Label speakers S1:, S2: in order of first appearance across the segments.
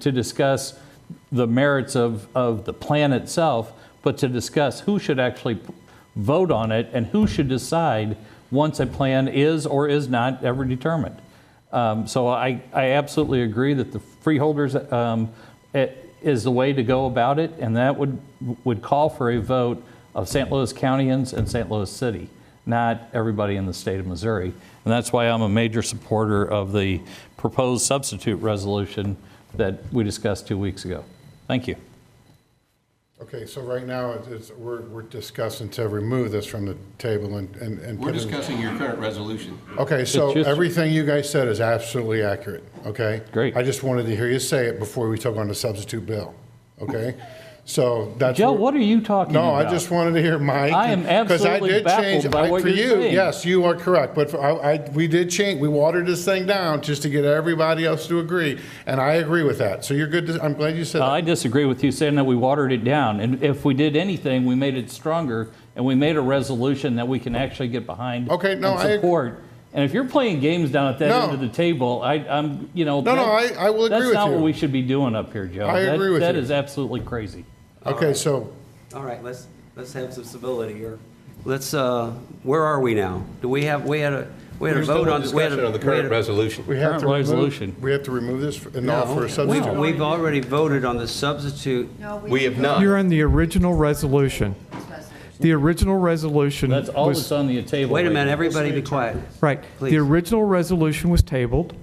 S1: to discuss the merits of, of the plan itself, but to discuss who should actually vote on it and who should decide once a plan is or is not ever determined. Um, So I, I absolutely agree that the freeholders um, i- is the way to go about it, and that would, would call for a vote of St. Louis Countyans and St. Louis City, not everybody in the state of Missouri. And that's why I'm a major supporter of the proposed substitute resolution that we discussed two weeks ago. Thank you.
S2: Okay, so right now, it's- it's, we're, we're discussing to remove this from the table and, and. and
S3: We're
S2: put it-
S3: discussing your current resolution.
S2: Okay, so
S1: It's just-
S2: everything you guys said is absolutely accurate, okay?
S1: Great.
S2: I just wanted to hear you say it before we took on the substitute bill, okay? So that's.
S1: Joe, what are you talking
S2: No,
S1: about?
S2: I just wanted to hear Mike.
S1: I am
S2: 'cause I
S1: absolutely
S2: did change-
S1: baffled by
S2: I-
S1: what
S2: for
S1: you're
S2: you,
S1: saying.
S2: Yes, you are correct, but for- I, I, we did change, we watered this thing down just to get everybody else to agree, and I agree with that. So you're good, to- I'm glad you said that.
S1: Uh, I disagree with you saying that we watered it down. And if we did anything, we made it stronger and we made a resolution that we can actually get behind.
S2: Okay, no,
S1: and
S2: I ag-
S1: support. And if you're playing games down at that
S2: No.
S1: end of the table, I, I'm, you know.
S2: No, no,
S1: that-
S2: I- I will agree
S1: That's
S2: with
S1: not what
S2: you.
S1: we should be doing up here, Joe.
S2: I
S1: That-
S2: agree with
S1: That
S2: you.
S1: is absolutely crazy.
S2: Okay, so
S4: All right, let's, let's have some civility here. Let's, uh, where are we now? Do we have, we had a, we had a
S3: We're still in
S4: vote on. we had a-
S3: Discussion on the
S4: we had
S3: current
S4: a-
S3: resolution.
S2: We have
S1: Current
S2: to remove-
S1: resolution.
S2: We have to remove this and
S4: No,
S2: offer a
S4: we've-
S2: substitute.
S4: We've already voted on the substitute.
S3: We have not.
S5: You're on the original resolution. The original resolution
S1: That's all
S5: was,
S1: that's on the table.
S4: Wait a
S1: right
S4: minute,
S1: now.
S4: everybody be quiet.
S5: right,
S4: Please.
S5: the original resolution was tabled.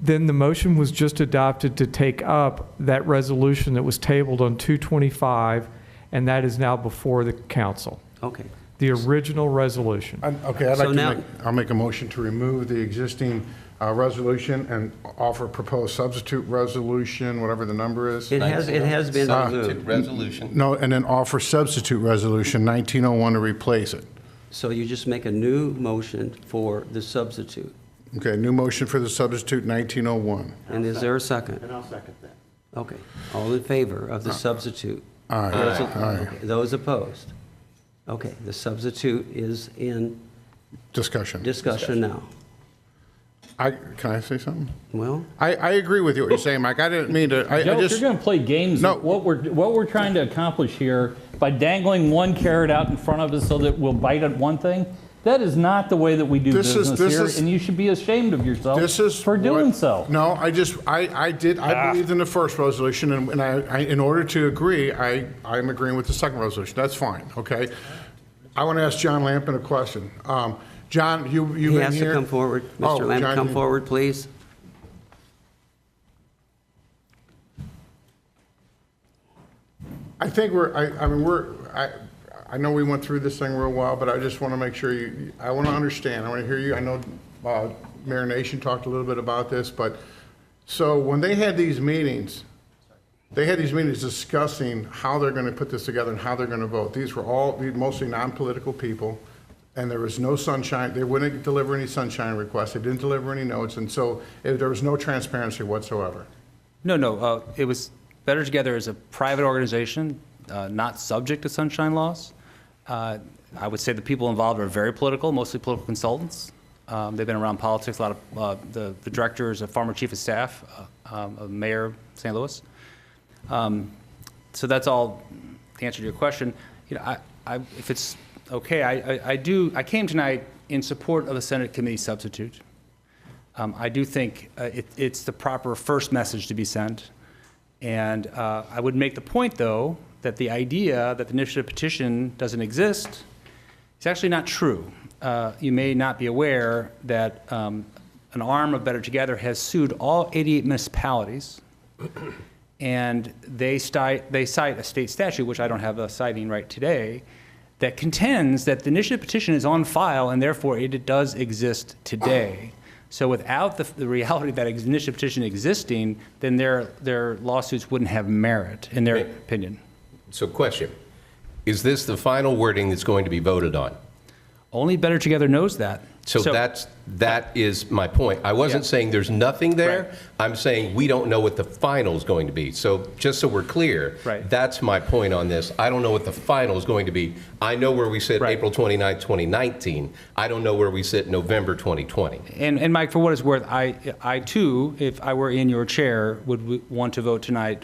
S5: Then the motion was just adopted to take up that resolution that was tabled on 225, and that is now before the council,
S4: Okay.
S5: the original resolution.
S2: I'm- Okay, I'd like
S4: So
S2: to
S4: now-
S2: make, I'll make a motion to remove the existing uh, resolution and offer proposed substitute resolution, whatever the number is.
S4: It has, it has been
S3: Substitute
S4: removed.
S3: resolution.
S2: No, and then offer substitute resolution 1901 to replace it.
S4: So you just make a new motion for the substitute.
S2: Okay, new motion for the substitute 1901.
S4: And is there a second? And I'll second that. Okay. All in favor of the substitute?
S2: Aye,
S4: Those-
S2: aye.
S4: okay, Those opposed? Okay, the substitute is in
S2: Discussion.
S4: discussion now.
S2: I, can I say something?
S4: Well?
S2: I, I agree with you, what you're saying, Mike. I didn't mean to, I I
S1: Joe, if
S2: just.
S1: you're going to play games,
S2: No.
S1: what we're, what we're trying to accomplish here by dangling one carrot out in front of us so that we'll bite at one thing, that is not the way that we do
S2: This is-
S1: business
S2: this
S1: here,
S2: is-
S1: and you should be ashamed of yourself
S2: This is.
S1: for doing
S2: what-
S1: so. Ah.
S2: No, I just, I, I did, I believed in the first resolution, and and I, I- in order to agree, I, I'm agreeing with the second resolution. That's fine, okay? I want to ask John Lampin a question. Um, John, you, you've
S4: He
S2: been here?
S4: has to come forward.
S2: Oh,
S4: Mr. Lamb,
S2: John,
S4: come
S2: you-
S4: forward, please.
S2: I think we're, I, I mean, we're, I, I know we went through this thing real well, but I just want to make sure you, I want to understand, I want to hear you, I know, uh, Mayor Nation talked a little bit about this, but, so when they had these meetings, they had these meetings discussing how they're going to put this together and how they're going to vote. These were all these mostly non-political people, and there was no sunshine, they wouldn't deliver any sunshine requests, they didn't deliver any notes, and so eh, there was no transparency whatsoever.
S6: No, no, uh, it was Better Together is a private organization, uh, not subject to sunshine laws. Uh, I would say the people involved are very political, mostly political consultants. Um, They've been around politics, a lot of, uh, the the director is a former chief of staff uh, um, of Mayor of St. Louis. Um, So that's all, the answer to your question. You know, I, I, if it's okay, I, I- I do, I came tonight in support of the Senate committee substitute. Um, I do think uh, it, it's the proper first message to be sent. And uh, I would make the point, though, that the idea that the initiative petition doesn't exist is actually not true. Uh, You may not be aware that um, an arm of Better Together has sued all 88 municipalities, and they cite, they cite a state statute, which I don't have a citing right today, that contends that the initiative petition is on file and therefore it does exist today. So without the, the reality that initiative petition existing, then their, their lawsuits wouldn't have merit, in their
S3: Okay.
S6: opinion.
S3: So question, is this the final wording that's going to be voted on?
S6: Only Better Together knows that.
S3: So
S6: So-
S3: that's, that is my point. I wasn't
S6: Yeah.
S3: saying there's nothing
S6: Right.
S3: there. I'm saying we don't know what the final's going to be. So just so we're clear,
S6: Right.
S3: that's my point on this. I don't know what the final's going to be. I know where we sit
S6: Right.
S3: April 29, 2019. I don't know where we sit November 2020.
S6: And, and Mike, for what it's worth, I, I too, if I were in your chair, would w- want to vote tonight